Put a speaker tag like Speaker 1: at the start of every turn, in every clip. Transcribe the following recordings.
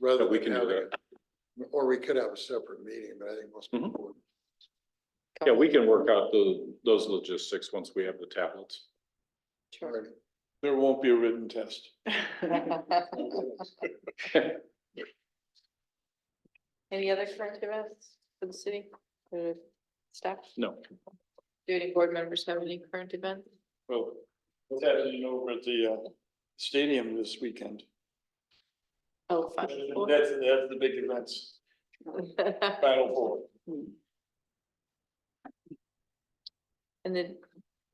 Speaker 1: rather
Speaker 2: But we
Speaker 1: than
Speaker 2: can do
Speaker 1: having, or we could have a separate meeting, but I think most
Speaker 3: Mm-hmm.
Speaker 2: Mhm.
Speaker 1: people.
Speaker 2: Yeah, we can work out the, those logistics once we have the tablets.
Speaker 1: would-
Speaker 3: There won't be a written test.
Speaker 4: Any other current events for the city, for the staff?
Speaker 2: No.
Speaker 4: Do any board members have any current events?
Speaker 3: Well, what's happening over at the uh, stadium this weekend?
Speaker 4: Oh, fun.
Speaker 3: That's, that's the big events, Final Four.
Speaker 4: And then,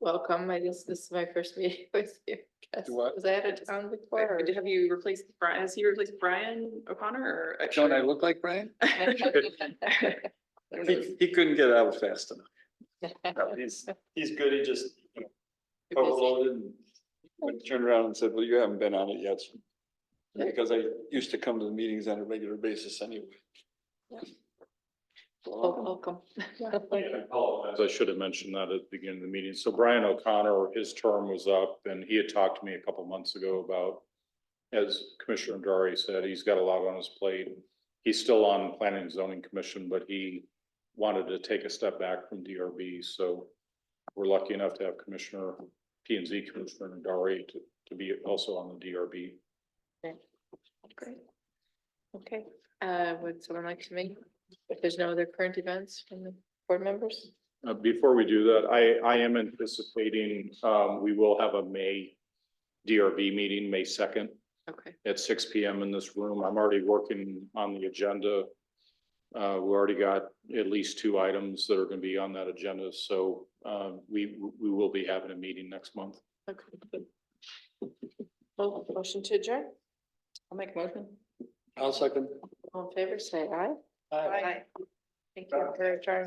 Speaker 4: welcome, I guess this is my first meeting with you. I guess.
Speaker 3: Do what?
Speaker 4: Was I out of town before? or-
Speaker 5: Have you replaced Brian, has he replaced Brian O'Connor or?
Speaker 3: Don't I look like Brian? He, he couldn't get out fast enough.
Speaker 2: Oh,
Speaker 3: No, He's, he's good, he just you know,
Speaker 4: You're busy.
Speaker 3: overloaded and but turned around and said, well, you haven't been on it yet. Because I used to come to the meetings on a regular basis anyway.
Speaker 4: Yeah. Wel-
Speaker 3: So,
Speaker 4: Welcome.
Speaker 2: As I should have mentioned that at the beginning of the meeting. So Brian O'Connor, his term was up and he had talked to me a couple months ago about, as Commissioner Dari said, he's got a lot on his plate. He's still on Planning and Zoning Commission, but he wanted to take a step back from DRB, so we're lucky enough to have Commissioner, P and Z Commissioner Dari to, to be also on the DRB.
Speaker 4: Great. Okay, uh, would someone like to make, if there's no other current events from the board members?
Speaker 2: Uh, before we do that, I, I am anticipating, um, we will have a May DRB meeting, May second
Speaker 4: Okay,
Speaker 2: at six P M in this room. I'm already working on the agenda. Uh, we already got at least two items that are gonna be on that agenda, so, um, we, we will be having a meeting next month.
Speaker 4: okay. Well, motion to adjourn? I'll make a motion.
Speaker 3: I'll second.
Speaker 4: All in favor, say aye.
Speaker 3: Aye.
Speaker 4: Thank you for adjourn.